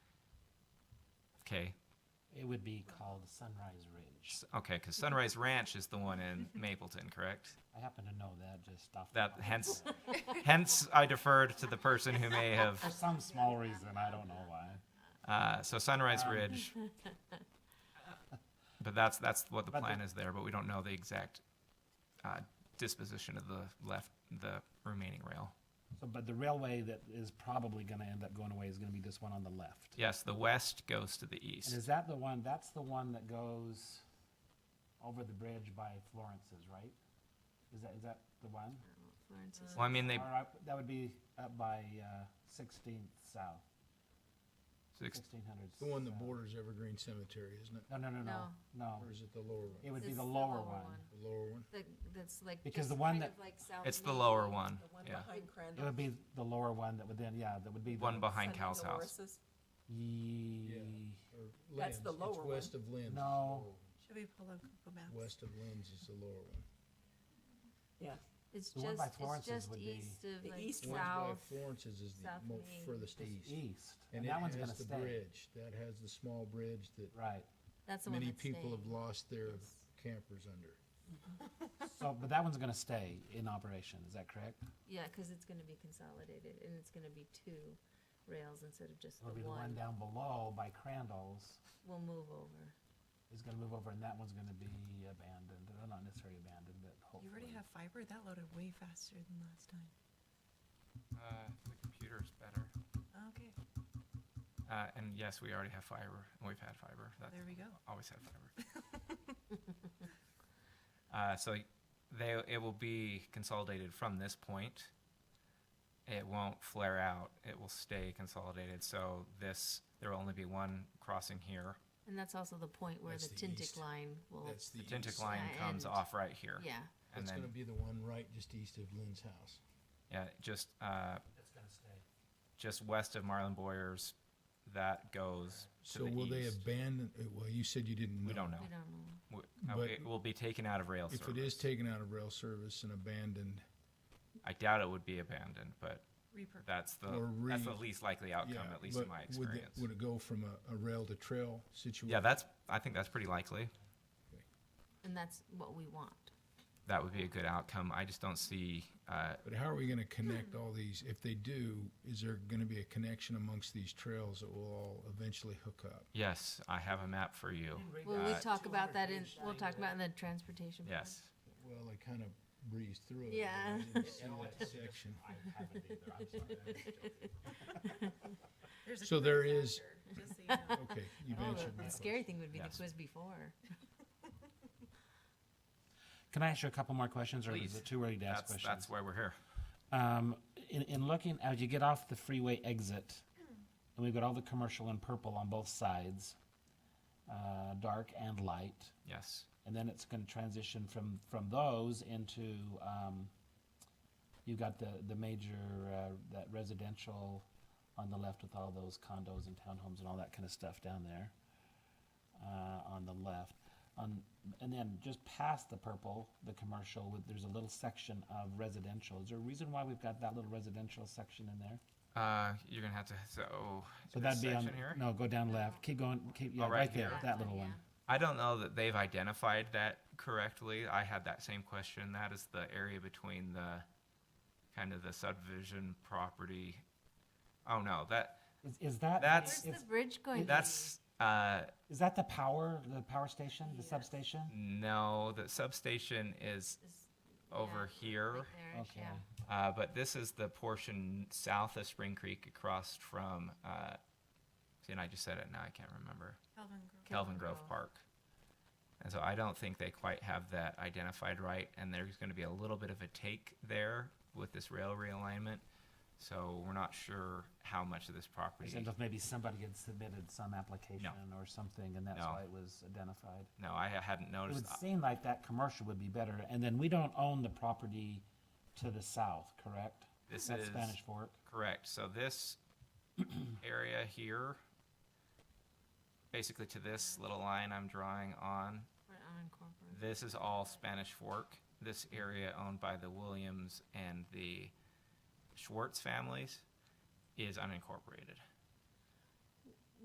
Okay, It would be called Sunrise Ridge. S- okay, because Sunrise Ranch is the one in Mapleton, correct? I happen to know that just off. the That top of my hence, head. hence I deferred to the person who may have. For some small reason, I don't know why. Uh, so Sunrise Um, Ridge. But that's, that's what the But the- plan is there, but we don't know the exact, uh, disposition of the left, the remaining rail. So, but the railway that is probably gonna end up going away is gonna be this one on the left. Yes, the west goes to the And east. is that the one, that's the one that goes over the bridge by Florence's, right? Is that, is that the one? Florence is- Well, I mean, they, Or up- that would be up by, uh, Sixteenth South, six- sixteen hundred. The one that borders Evergreen Cemetery, isn't it? No, no, no, no, No. no. Or is it the lower one? It would be It's the lower one. The lower one? The, that's like. Because just the one kind that- of like south it's the Main. lower one, The one yeah. behind It Crandall. would be the lower one that would then, yeah, that would be. the- One behind Sunday Cal's house. Dolores's. Ye- Or That's the Lynn's. lower one. It's west of Lynn's. is No. the lower one. Should we pull up Google Maps? West of Lynn's is the lower one. Yeah. It's The one by just, it's Florence's just would be- east of The like east The ones by south. Florence's is the south most main. furthest It's east. east, And and it that one's has gonna the stay. bridge, that has the small bridge that Right, That's the one many that's staying. people have lost their Yes. campers under. so, but that one's gonna stay in operation, is that correct? Yeah, cause it's gonna be consolidated and it's gonna be two rails instead of just It'll the be the one one. down below by Crandall's We'll move over. is gonna move over, and that one's gonna be abandoned, Well, not necessarily abandoned, but You hopefully. already have fiber? That loaded way faster than last time. Uh, the computer's better. Okay, Uh, and yes, we already have fiber, and we've had fiber. That's there we go. always had fiber. uh, so they it will be consolidated from this point. It won't flare out. It will stay consolidated. So this there will only be one crossing here. And that's also the point where That's the the Tintic east. line will, That's the The Tintic east. line Yeah, comes and- off right here, yeah. and That's then gonna be the one right just east of Lynn's house. yeah, just uh, It's gonna stay. just west of Marlin Boyer's, that goes to So the will east. they abandon, uh, well, you said you didn't know. we don't know. We don't know. W- uh, But it will be taken out of rail If it service. is taken out of rail service and abandoned, I doubt it would be abandoned, but Repurpose. that's the Or that's the re- least likely outcome, Yeah, at least in but my would the- experience. Would it go from a, a rail to trail Yeah, situation? that's, I think that's pretty likely. And that's what we want. That would be a good outcome. I just don't see, uh, But how are we gonna connect Hmm. all these? If they do, is there gonna be a connection amongst these trails that will all eventually hook up? yes, I have a map for you. Well, we Uh, talk about that in, we'll talk about in the transportation. plan. Yes. Well, I kind of breezed through it. but Yeah. I didn't see that section. I haven't either, I'm sorry, I'm just joking. There's a So quiz there is- after, just so you know. Okay, you've Oh, answered my the question. scary thing would be the Yes. quiz before. Can I ask you a couple more questions, or Please. is it too early to ask That's, questions? that's why we're here. Um, in, in looking, as you get off the freeway exit, and we've got all the commercial in purple on both sides, uh, dark and light, Yes. and then it's gonna transition from, from those into, um, you got the, the major, uh, that residential on the left with all those condos and townhomes and all that kinda stuff down there, uh, on the left. On, and then just past the purple, the commercial, with, there's a little section of residential. Is there a reason why we've got that little residential section in there? Uh, you're gonna have to, so, So this that'd be on, section here? no, go down left, keep going, keep, yeah, Oh, right right there, here. that little one. I don't know that they've identified that correctly. I had that same question. That is the area between the, kind of the subdivision property. Oh, no, that, Is, is that? That's- Where's is- the bridge going? to that's, uh, Is that the power, the power station, the substation? no, the substation is be? Is- over yeah, here. right there-ish, Okay. yeah. Uh, but this is the portion south of Spring Creek across from, uh, see, and I just said it now, I can't remember, Calvin Grove. Kelvin Grove Grove. Park. And so I don't think they quite have that identified right, and there's gonna be a little bit of a take there with this rail realignment. So we're not sure how much of this property, As if maybe somebody had submitted some application or something, and that's No. why it was identified. no, I hadn't It noticed. would seem like that commercial would be better, and then we don't own the property to the south, correct? This That's is- Spanish Fork. Correct. So this area here, basically to this little line I'm drawing on, We're unincorporated. This is all Spanish Fork, this area owned by the Williams and the Schwartz families is unincorporated.